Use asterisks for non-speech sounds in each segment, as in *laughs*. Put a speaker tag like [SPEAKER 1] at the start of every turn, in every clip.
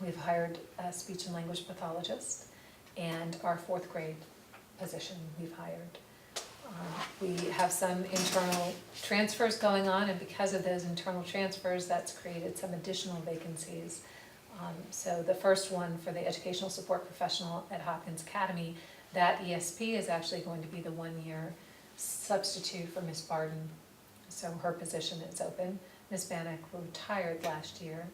[SPEAKER 1] We've hired a speech and language pathologist and our fourth grade position we've hired. Um, We have some internal transfers going on and because of those internal transfers, that's created some additional vacancies. Um, So the first one for the educational support professional at Hopkins Academy, that ESP is actually going to be the one-year substitute for Miss Barden. So her position is open. Miss Bannock retired last year.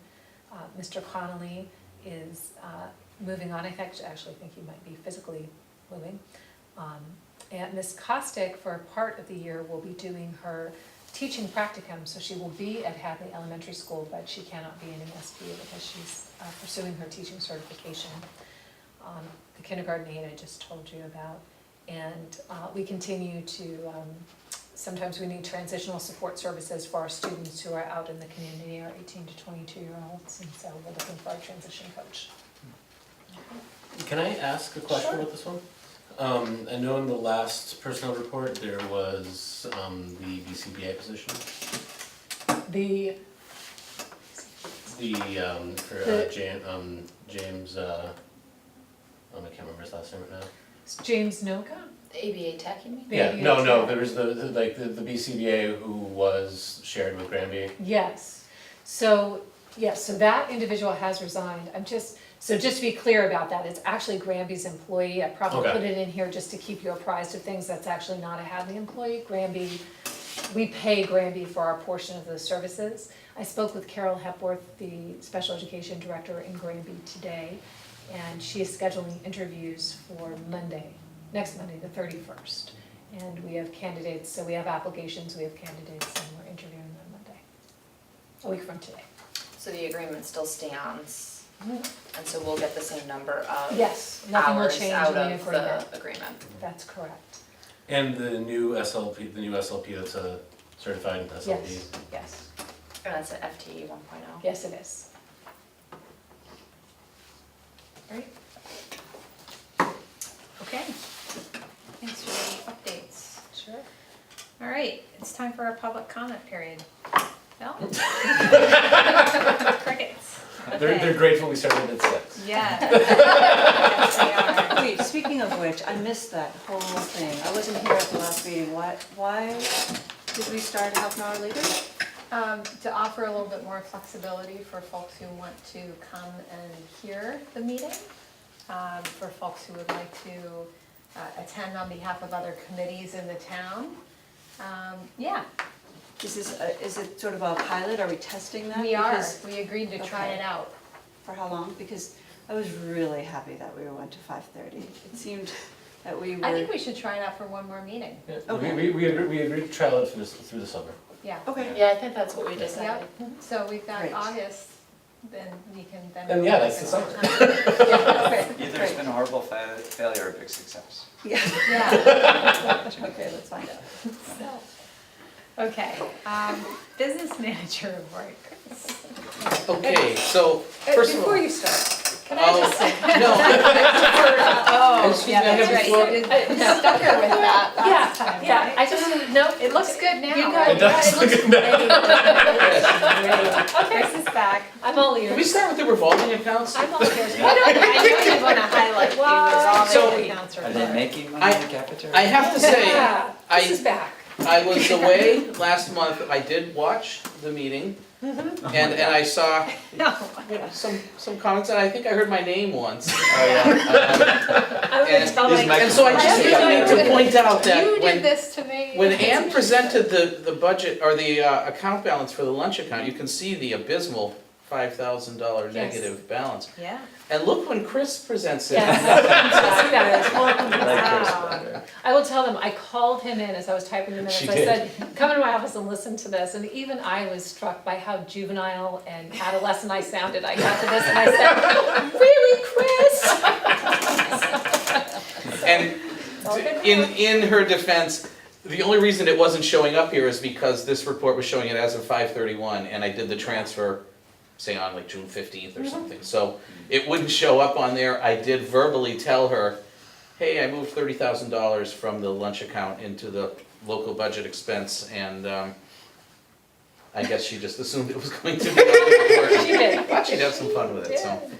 [SPEAKER 1] Uh, Mr. Connolly is uh, moving on, I fact- actually think he might be physically moving. Um, And Miss Costick, for a part of the year, will be doing her teaching practicum, so she will be at Hadley Elementary School, but she cannot be in an SP because she's uh, pursuing her teaching certification. Um, The kindergarten aide I just told you about. And uh, we continue to, um, sometimes we need transitional support services for our students who are out in the community, our eighteen to twenty-two year olds, and so we're looking for a transition coach.
[SPEAKER 2] Can I ask a question
[SPEAKER 1] Sure.
[SPEAKER 2] about this one? Um, I know in the last personnel report, there was, um, the VCBA position,
[SPEAKER 1] The,
[SPEAKER 2] the, um, for, uh,
[SPEAKER 1] The-
[SPEAKER 2] James, um, James, uh, um, I can't remember his last name right now.
[SPEAKER 1] James Noka,
[SPEAKER 3] ABA Tech, you mean?
[SPEAKER 1] The
[SPEAKER 2] Yeah, no, no,
[SPEAKER 1] ABHA.
[SPEAKER 2] there was the, the- like, the, the BCBA who was shared with Granby.
[SPEAKER 1] Yes, so, yes, so that individual has resigned, I'm just, so just to be clear about that, it's actually Granby's employee, I probably
[SPEAKER 2] Okay.
[SPEAKER 1] put it in here just to keep you apprised of things, that's actually not a Hadley employee, Granby, we pay Granby for our portion of those services. I spoke with Carol Hepworth, the special education director in Granby today, and she is scheduling interviews for Monday, next Monday, the thirty-first. And we have candidates, so we have applications, we have candidates, and we're interviewing on Monday a week from today.
[SPEAKER 3] So the agreement still stands, and so we'll get the same number of
[SPEAKER 1] Oh, Yes, nothing will
[SPEAKER 3] hours
[SPEAKER 1] change in
[SPEAKER 3] out
[SPEAKER 1] the
[SPEAKER 3] of
[SPEAKER 1] agreement.
[SPEAKER 3] the agreement.
[SPEAKER 1] That's correct.
[SPEAKER 2] And the new SLP, the new SLP that's a certified SLP.
[SPEAKER 1] Yes, yes,
[SPEAKER 3] And that's an FTE E one oh.
[SPEAKER 1] yes it is.
[SPEAKER 3] Right.
[SPEAKER 1] Okay,
[SPEAKER 4] Thanks for the updates.
[SPEAKER 1] sure.
[SPEAKER 4] All right, it's time for our public comment period.
[SPEAKER 3] *laughs*
[SPEAKER 4] Bill? Crickets.
[SPEAKER 2] They're, they're grateful we started at six.
[SPEAKER 3] *laughs*
[SPEAKER 4] Yeah. Yes,
[SPEAKER 5] Wait, speaking of which, I missed that whole thing. I wasn't here at the last meeting. Why, why did we start half an hour later?
[SPEAKER 6] Um, to offer a little bit more flexibility for folks who want to come and hear the meeting, um, for folks who would like to uh, attend on behalf of other committees in the town. Um, yeah,
[SPEAKER 5] Is this, a- is it sort of a pilot? Are we testing that?
[SPEAKER 6] we are,
[SPEAKER 5] Because-
[SPEAKER 6] we agreed to try
[SPEAKER 5] Okay.
[SPEAKER 6] it out.
[SPEAKER 5] For how long? Because I was really happy that we went to five thirty. It seemed that we were.
[SPEAKER 6] I think we should try it out for one more meeting,
[SPEAKER 2] Yeah, We,
[SPEAKER 5] Okay.
[SPEAKER 2] we, we agreed, we agreed to trial it through, this- through the summer.
[SPEAKER 6] yeah.
[SPEAKER 5] Okay.
[SPEAKER 3] Yeah, I think that's what we decided.
[SPEAKER 6] Yep,
[SPEAKER 1] Mm-hmm.
[SPEAKER 6] so we've got
[SPEAKER 5] Great.
[SPEAKER 6] August, then we can then.
[SPEAKER 2] And yeah, that's the summer.
[SPEAKER 5] Okay,
[SPEAKER 7] Either it's
[SPEAKER 5] great.
[SPEAKER 7] been a horrible fa- failure or a big success.
[SPEAKER 5] Yeah,
[SPEAKER 6] Yeah,
[SPEAKER 5] okay, let's find out.
[SPEAKER 4] So, Okay, um, business manager report. Chris.
[SPEAKER 8] Okay, so first of all.
[SPEAKER 1] Before you start,
[SPEAKER 4] Can I just say?
[SPEAKER 8] *laughs* No,
[SPEAKER 4] Oh,
[SPEAKER 8] Excuse me,
[SPEAKER 4] yeah,
[SPEAKER 8] I
[SPEAKER 4] that's
[SPEAKER 8] have
[SPEAKER 4] right.
[SPEAKER 8] the floor.
[SPEAKER 4] You did that. No.
[SPEAKER 6] stuck her with that last
[SPEAKER 1] Yeah,
[SPEAKER 6] time,
[SPEAKER 1] yeah,
[SPEAKER 6] right?
[SPEAKER 1] I just, no,
[SPEAKER 4] It looks good now.
[SPEAKER 1] You guys-
[SPEAKER 2] It does look good
[SPEAKER 4] *laughs* Chris is back.
[SPEAKER 1] I'm all
[SPEAKER 8] can we
[SPEAKER 1] ears.
[SPEAKER 8] start with the revolving accounts?
[SPEAKER 1] I'm all ears.
[SPEAKER 4] I don't, I know you wanna highlight the
[SPEAKER 8] So-
[SPEAKER 4] resolving accounts
[SPEAKER 7] Are
[SPEAKER 4] report.
[SPEAKER 7] they making money in the cafeteria?
[SPEAKER 8] I have to say,
[SPEAKER 1] Yeah,
[SPEAKER 8] I-
[SPEAKER 1] This is back.
[SPEAKER 8] I was away last month, I did watch the meeting, and, and I saw
[SPEAKER 4] No.
[SPEAKER 8] you know, some, some comments, and I think I heard my name once.
[SPEAKER 7] Oh, yeah.
[SPEAKER 1] I was
[SPEAKER 8] *laughs* And-
[SPEAKER 1] like-
[SPEAKER 7] These mic-
[SPEAKER 8] And so I just
[SPEAKER 6] I have
[SPEAKER 8] need
[SPEAKER 6] to
[SPEAKER 8] to point out
[SPEAKER 6] You
[SPEAKER 8] that
[SPEAKER 6] did
[SPEAKER 8] when,
[SPEAKER 6] this to me.
[SPEAKER 8] when Ann presented the, the budget, or the uh, account balance for the lunch account, you can see the abysmal five thousand dollar
[SPEAKER 1] Yes.
[SPEAKER 8] negative balance.
[SPEAKER 1] *laughs*
[SPEAKER 4] Yeah.
[SPEAKER 8] And look when Chris presents it.
[SPEAKER 1] Yes, I see that.
[SPEAKER 7] I like Chris
[SPEAKER 4] Wow.
[SPEAKER 7] better.
[SPEAKER 1] I will tell them, I called him in as I was typing the minutes,
[SPEAKER 2] She
[SPEAKER 1] I
[SPEAKER 2] did.
[SPEAKER 1] said, come into my office and listen to this, and even I was struck by how juvenile and adolescent I sounded, I got to this and I said, really, Chris?
[SPEAKER 8] And in, in her defense, the only reason it wasn't showing up here is because this report was showing it as of five thirty-one, and I did the transfer, say on like June fifteenth
[SPEAKER 1] Mm-hmm.
[SPEAKER 8] or something, so it wouldn't show up on there, I did verbally tell her, hey, I moved thirty thousand dollars from the lunch account into the local budget expense, and, um, I guess she just assumed it was going to be on the report.
[SPEAKER 1] *laughs* She did.
[SPEAKER 8] Thought she'd have some fun with it, so.